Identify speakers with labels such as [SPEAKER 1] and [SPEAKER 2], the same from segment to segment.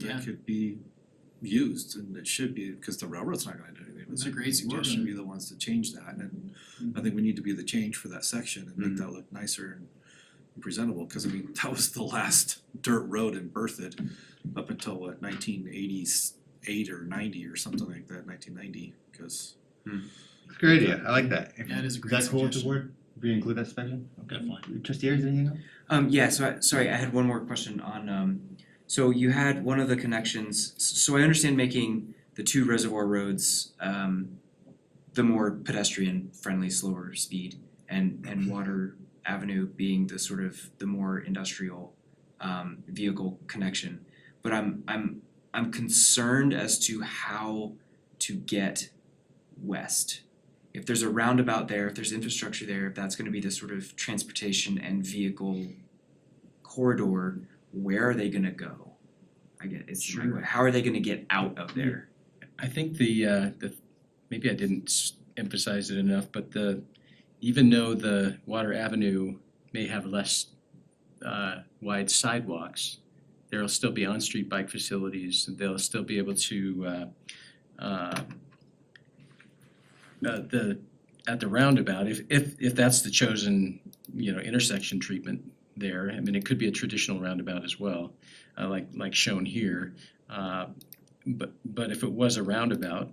[SPEAKER 1] Yeah.
[SPEAKER 2] that could be used and it should be, cause the railroad's not gonna do anything. with
[SPEAKER 1] That's
[SPEAKER 2] it.
[SPEAKER 1] a great
[SPEAKER 2] We're
[SPEAKER 1] suggestion. Mm-hmm.
[SPEAKER 2] gonna be the ones to change that and I think we need to be the change for that section and make that look nicer and presentable, cause I mean, that was the last dirt road in Berthoud up until what nineteen eighties eight or ninety or something like that, nineteen ninety, cause
[SPEAKER 3] Great idea, I like that. If-
[SPEAKER 1] Yeah, it is
[SPEAKER 3] Is
[SPEAKER 1] a great
[SPEAKER 3] that cool with the
[SPEAKER 1] suggestion. Mm-hmm.
[SPEAKER 3] board? We include that section?
[SPEAKER 4] Definitely.
[SPEAKER 3] Trustee Ayers, anything else?
[SPEAKER 5] Um yeah, so I, sorry, I had one more question on um, so you had one of the connections, s- so I understand making the two reservoir roads um the more pedestrian friendly, slower speed and and Water Avenue being the sort of the more industrial um vehicle connection. But I'm I'm I'm concerned as to how to get west. If there's a roundabout there, if there's infrastructure there, if that's gonna be the sort of transportation and vehicle corridor, where are they gonna go? I get, it's my
[SPEAKER 1] Sure.
[SPEAKER 5] que- how are they gonna get out of there?
[SPEAKER 1] I think the uh the, maybe I didn't s- emphasize it enough, but the, even though the Water Avenue may have less uh wide sidewalks, there'll still be on-street bike facilities, and they'll still be able to uh uh uh, the, at the roundabout, if if if that's the chosen, you know, intersection treatment there, I mean, it could be a traditional roundabout as well, uh like like shown here. Uh but but if it was a roundabout,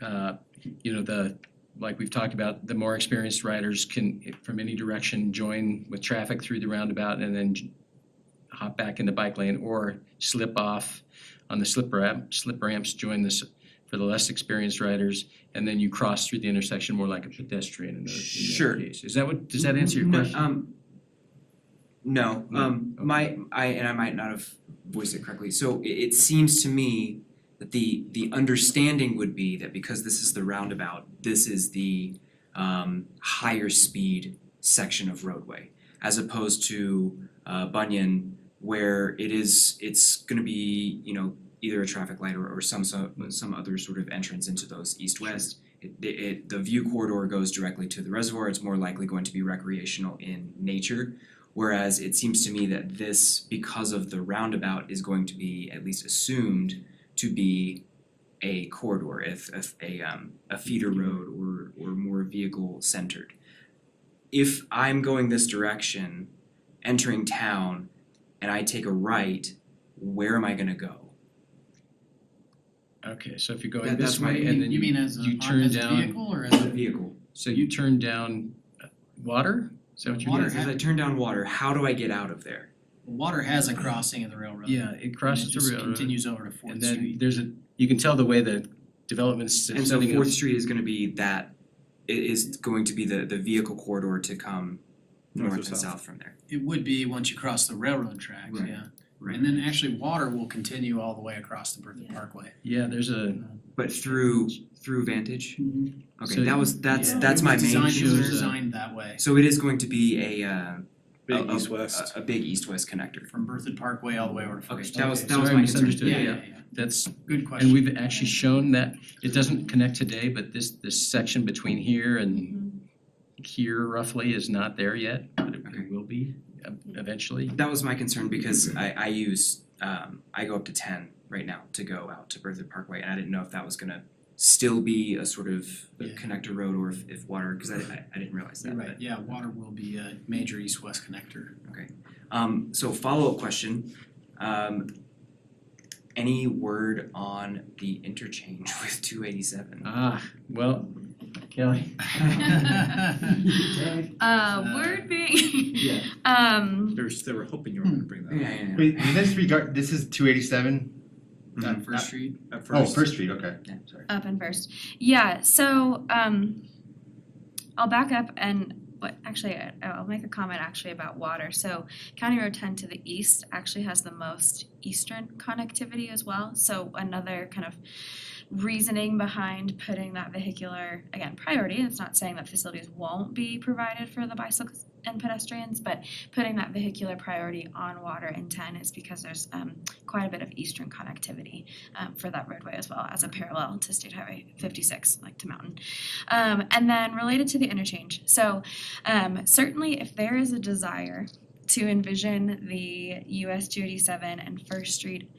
[SPEAKER 1] uh, you know, the, like we've talked about, the more experienced riders can, from any direction, join with traffic through the roundabout and then j- hop back in the bike lane or slip off on the slip ramp, slip ramps, join this, for the less experienced riders, and then you cross through the intersection more like a pedestrian in the, in that
[SPEAKER 5] Sure.
[SPEAKER 1] case. Is that what, does that answer your
[SPEAKER 5] No,
[SPEAKER 1] question?
[SPEAKER 5] um, no,
[SPEAKER 1] No,
[SPEAKER 5] um, my, I, and I might not have voiced it correctly, so it, it seems to me that the, the understanding would be that because this is the roundabout, this is the, um, higher speed section of roadway, as opposed to, uh, Bunyan, where it is, it's gonna be, you know, either a traffic light or, or some, some, some other sort of entrance into those east-west it, it- it, the view corridor goes directly to the reservoir, it's more likely going to be recreational in nature. Whereas it seems to me that this, because of the roundabout, is going to be at least assumed to be a corridor, if, if a, um, a feeder road or, or more vehicle centered. If I'm going this direction, entering town, and I take a right, where am I gonna go?
[SPEAKER 1] Okay, so if you're going
[SPEAKER 5] That-
[SPEAKER 1] this
[SPEAKER 5] that's my-
[SPEAKER 1] way and then
[SPEAKER 6] You mean
[SPEAKER 1] you,
[SPEAKER 6] as a,
[SPEAKER 1] you
[SPEAKER 6] on-
[SPEAKER 1] turn
[SPEAKER 6] as a
[SPEAKER 1] down,
[SPEAKER 6] vehicle or as
[SPEAKER 5] As a
[SPEAKER 6] a?
[SPEAKER 5] vehicle.
[SPEAKER 1] so you turn down uh, water? Is that what you're
[SPEAKER 6] Water
[SPEAKER 1] doing?
[SPEAKER 5] Yes, as I turn down water, how do I get out of there?
[SPEAKER 6] Water has a crossing in the railroad.
[SPEAKER 1] Yeah, it
[SPEAKER 6] And it
[SPEAKER 1] crosses the
[SPEAKER 6] just
[SPEAKER 1] railroad.
[SPEAKER 6] continues over to Fourth
[SPEAKER 1] And then
[SPEAKER 6] Street.
[SPEAKER 1] there's a, you can tell the way the developments are
[SPEAKER 5] And so
[SPEAKER 1] setting up.
[SPEAKER 5] Fourth Street is gonna be that, i- is going to be the the vehicle corridor to come
[SPEAKER 2] North or
[SPEAKER 5] north and
[SPEAKER 2] south.
[SPEAKER 5] south from there.
[SPEAKER 6] It would be once you cross the railroad tracks,
[SPEAKER 5] Right.
[SPEAKER 6] yeah.
[SPEAKER 5] Right.
[SPEAKER 6] And then actually water will continue all the way across the Berthoud
[SPEAKER 4] Yeah.
[SPEAKER 6] Parkway.
[SPEAKER 1] Yeah, there's a,
[SPEAKER 5] But through through Vantage?
[SPEAKER 1] So
[SPEAKER 5] Okay, that was, that's
[SPEAKER 4] yeah.
[SPEAKER 5] that's
[SPEAKER 6] It
[SPEAKER 5] my
[SPEAKER 6] was
[SPEAKER 5] main
[SPEAKER 6] designed- It was
[SPEAKER 1] Shows, uh,
[SPEAKER 6] designed that way,
[SPEAKER 5] So it is going to be a uh a-
[SPEAKER 2] big
[SPEAKER 5] a-
[SPEAKER 2] east west.
[SPEAKER 5] a a big east-west connector.
[SPEAKER 6] from Berthoud Parkway all the way over to
[SPEAKER 5] Okay,
[SPEAKER 6] Fourth Street.
[SPEAKER 5] that was
[SPEAKER 1] Okay,
[SPEAKER 5] that was
[SPEAKER 1] sorry,
[SPEAKER 5] my
[SPEAKER 1] misunderstood.
[SPEAKER 5] concern,
[SPEAKER 6] Yeah,
[SPEAKER 1] yeah,
[SPEAKER 6] yeah, yeah.
[SPEAKER 1] that's,
[SPEAKER 6] Good
[SPEAKER 1] and
[SPEAKER 6] question.
[SPEAKER 1] we've actually shown that it doesn't connect today, but this, this section between here and
[SPEAKER 6] Mm-hmm.
[SPEAKER 1] here roughly is not there yet, but it-
[SPEAKER 5] Okay.
[SPEAKER 1] it will be uh, eventually.
[SPEAKER 5] That was my concern because
[SPEAKER 6] Mm-hmm.
[SPEAKER 5] I I use, um, I go up to ten right now to go out to Berthoud Parkway and I didn't know if that was gonna still be a sort of
[SPEAKER 6] Yeah.
[SPEAKER 5] connector road or if if water, cause I I I didn't realize
[SPEAKER 6] You're
[SPEAKER 5] that, but
[SPEAKER 6] right, yeah, water will be a major east-west connector.
[SPEAKER 5] Um so follow-up question, um any word on the interchange with two
[SPEAKER 6] Uh,
[SPEAKER 5] eighty-seven?
[SPEAKER 1] Ah, well, Kelly,
[SPEAKER 4] Uh,
[SPEAKER 6] Uh,
[SPEAKER 4] word being,
[SPEAKER 5] Yeah.
[SPEAKER 4] um,
[SPEAKER 2] There's, they were hoping
[SPEAKER 1] Hmm.
[SPEAKER 2] you were gonna bring
[SPEAKER 5] Yeah,
[SPEAKER 2] that
[SPEAKER 5] yeah, yeah.
[SPEAKER 3] Wait, is this regard, this is two eighty-seven?
[SPEAKER 1] Mm-hmm.
[SPEAKER 6] On First Street,
[SPEAKER 2] up at
[SPEAKER 3] Oh,
[SPEAKER 2] first.
[SPEAKER 3] First Street, okay.
[SPEAKER 5] Yeah.
[SPEAKER 3] Sorry.
[SPEAKER 4] up and first. Yeah, so um I'll back up and what actually I- I'll make a comment actually about water. So County Road 10 to the east actually has the most eastern connectivity as well. So another kind of reasoning behind putting that vehicular again priority. It's not saying that facilities won't be provided for the bicycles and pedestrians, but putting that vehicular priority on water in 10 is because there's um, quite a bit of eastern connectivity um, for that roadway as well as a parallel to State Highway 56, like to Mountain. Um, and then related to the interchange, so um, certainly if there is a desire to envision the US two eighty-seven and First Street